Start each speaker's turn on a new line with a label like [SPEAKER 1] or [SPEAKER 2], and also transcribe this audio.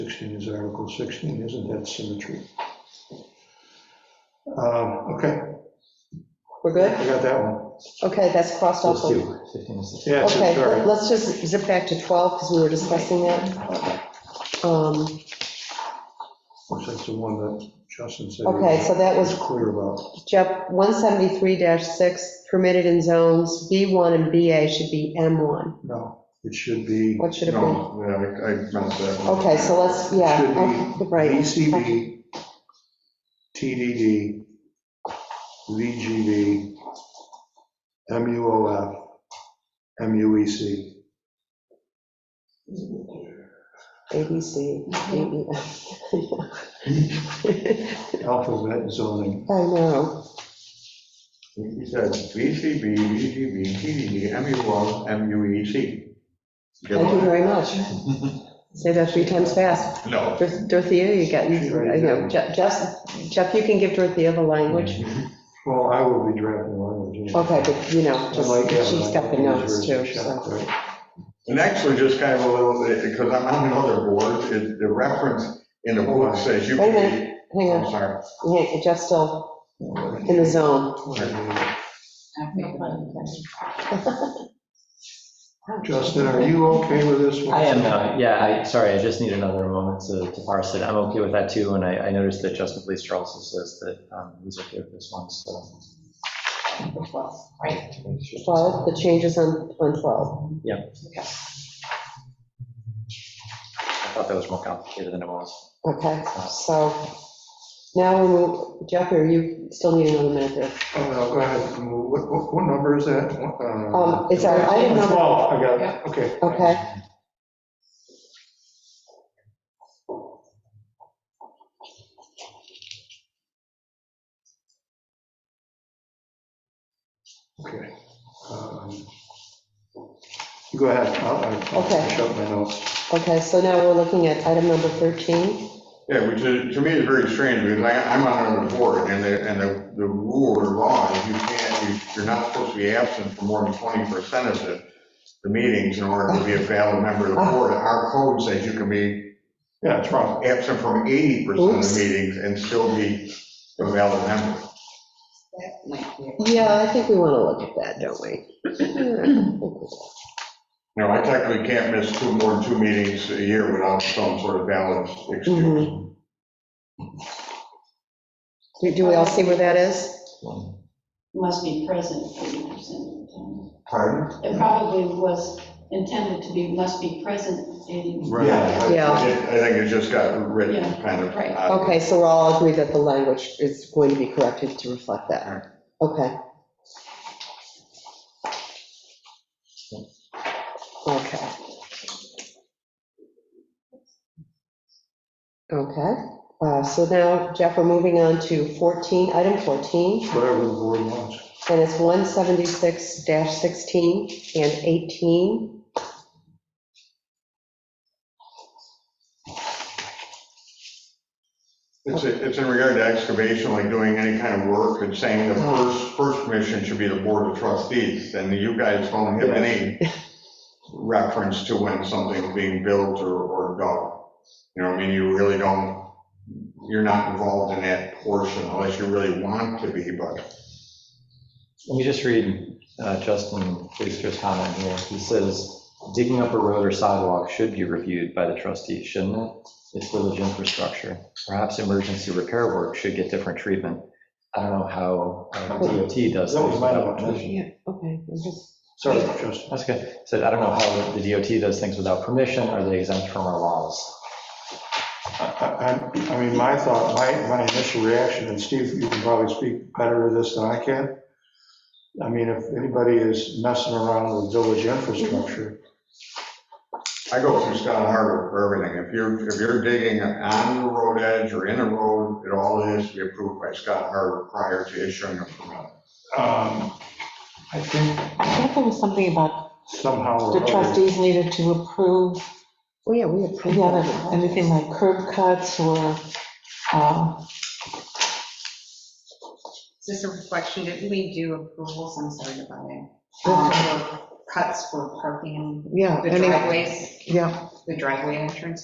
[SPEAKER 1] 16 is Article 16, isn't that symmetry? Um, Okay,
[SPEAKER 2] We're
[SPEAKER 1] I
[SPEAKER 2] good?
[SPEAKER 1] got that one.
[SPEAKER 2] Okay, that's crossed off.
[SPEAKER 3] Those two, 15 and 16.
[SPEAKER 1] Yeah, it's
[SPEAKER 2] Okay,
[SPEAKER 1] sorry.
[SPEAKER 2] let's just zip back to 12, because we were discussing that. Um,
[SPEAKER 1] Which that's the one that Justin said. he
[SPEAKER 2] Okay, so that was
[SPEAKER 1] was clear about.
[SPEAKER 2] Jeff, 173-6, permitted in zones, B1 and BA should be M1.
[SPEAKER 1] No, it should be
[SPEAKER 2] What should it be?
[SPEAKER 4] No, yeah, I, I messed that one. up.
[SPEAKER 2] Okay, so let's,
[SPEAKER 1] Should
[SPEAKER 2] yeah,
[SPEAKER 1] be
[SPEAKER 2] okay, right.
[SPEAKER 1] VCB, TDD, VGB, MUOF, E MUEC.
[SPEAKER 2] A, B, C, D, E, F.
[SPEAKER 1] Alphabet zoning.
[SPEAKER 2] I know.
[SPEAKER 4] He said VCB, VGB, TDD, MUL, MUEC. Good
[SPEAKER 2] Thank you
[SPEAKER 4] one.
[SPEAKER 2] very much. Say that three times fast.
[SPEAKER 4] No.
[SPEAKER 2] Dor- Dorothea, you got, you know, Je- Jeff, Jeff, you can give Dorothea the language.
[SPEAKER 4] Mm-hmm.
[SPEAKER 1] Well, I will be drafting language.
[SPEAKER 2] Okay, but you know,
[SPEAKER 1] I
[SPEAKER 2] just,
[SPEAKER 1] might have
[SPEAKER 2] she's
[SPEAKER 1] it.
[SPEAKER 2] got the notes too,
[SPEAKER 1] Right.
[SPEAKER 2] so.
[SPEAKER 4] Next, we're just kind of a little, because I'm on another board, it- the reference in the book says you
[SPEAKER 2] Wait a
[SPEAKER 4] can be,
[SPEAKER 2] Hang
[SPEAKER 4] I'm
[SPEAKER 2] on,
[SPEAKER 4] sorry.
[SPEAKER 2] yeah, Jeff's still in the zone.
[SPEAKER 1] Justin, are you okay with this one?
[SPEAKER 3] I am now, yeah, I, sorry, I just need another moment to to parse it. I'm okay with that too, and I, I noticed that Justin Police Charles says that um, he's okay with this one, so.
[SPEAKER 2] Well, the changes on, on 12.
[SPEAKER 3] I thought that was more complicated than it was.
[SPEAKER 2] Okay, so now, we move- Jeff, are you still need another minute there?
[SPEAKER 1] Oh, no, go ahead. What, what, what number is that? Uh,
[SPEAKER 2] Um, It's our item number,
[SPEAKER 1] Twelve, I got it, okay.
[SPEAKER 2] okay,
[SPEAKER 1] Okay. Um, you Go ahead, I'll, I'll
[SPEAKER 2] Okay.
[SPEAKER 1] finish up my notes.
[SPEAKER 2] okay, so now we're looking at item number 13.
[SPEAKER 4] Yeah, which is, to me is very strange, because I, I'm on another board, and the, and the, the rule or law is you can't, you- you're not supposed to be absent for more than twenty percent of the, the meetings in order to be a valid member of the board. Our code says you can be
[SPEAKER 1] Yeah, it's wrong.
[SPEAKER 4] absent from eighty percent of
[SPEAKER 2] Oops.
[SPEAKER 4] the meetings and still be a valid member.
[SPEAKER 2] Yeah, I think we want to look at that, don't we?
[SPEAKER 4] You know, I technically can't miss two, more than two meetings a year without some sort of valid excuse.
[SPEAKER 2] Mhm. Do- Do we all see where that is?
[SPEAKER 5] must be present eighty percent of the time.
[SPEAKER 4] Pardon?
[SPEAKER 5] It probably was intended to be must be present eighty.
[SPEAKER 1] Right.
[SPEAKER 2] Yeah.
[SPEAKER 4] I think it just got written kind of. uh,
[SPEAKER 5] Right.
[SPEAKER 4] oddly.
[SPEAKER 2] Okay, so we're all agreed that the language is going to be corrected to reflect that. Okay. Okay. Okay, uh, so now, Jeff, we're moving on to 14, item 14.
[SPEAKER 1] Whatever the board wants.
[SPEAKER 2] And it's 176-16 and 18.
[SPEAKER 4] It's, it's in regard to excavation, like doing any kind of work and saying the first, first mission should be the board of trustees. And you guys don't have any reference to when something's being built or, or dug. You know, what I mean, you really don't, you're not involved in that portion unless you really want to be, but.
[SPEAKER 3] Let me just read uh, Justin Police's comment here. He says, digging up a road or sidewalk should be reviewed by the trustees, shouldn't it? It's village infrastructure. Perhaps emergency repair work should get different treatment. I don't know how uh, DOT does
[SPEAKER 1] That was my
[SPEAKER 3] this.
[SPEAKER 1] note.
[SPEAKER 2] Yeah, okay. I'm just-
[SPEAKER 1] Sorry, Justin.
[SPEAKER 3] That's good. Said, I don't know how the DOT does things without permission. Are they exempt from our laws?
[SPEAKER 1] I, I I mean, my thought, my, my initial reaction, and Steve, you can probably speak better to this than I can. I mean, if anybody is messing around with village infrastructure,
[SPEAKER 4] I go through Scott Harbor for everything. If you're, if you're digging on the road edge or in a road, it all has to be approved by Scott Harbor prior to issuing a permit.
[SPEAKER 1] um, I think
[SPEAKER 6] I thought there was something about
[SPEAKER 1] somehow. or
[SPEAKER 6] the
[SPEAKER 1] other-
[SPEAKER 6] trustees needed to approve,
[SPEAKER 2] Oh, yeah, we approved
[SPEAKER 6] yeah,
[SPEAKER 2] that.
[SPEAKER 6] that- anything like curb cuts or, uh,
[SPEAKER 7] Is this a reflection, did we do approvals, I'm sorry about it, Um, for cuts for parking,
[SPEAKER 2] Yeah,
[SPEAKER 7] the
[SPEAKER 2] any-
[SPEAKER 7] driveways,
[SPEAKER 2] yeah.
[SPEAKER 7] the driveway entrance?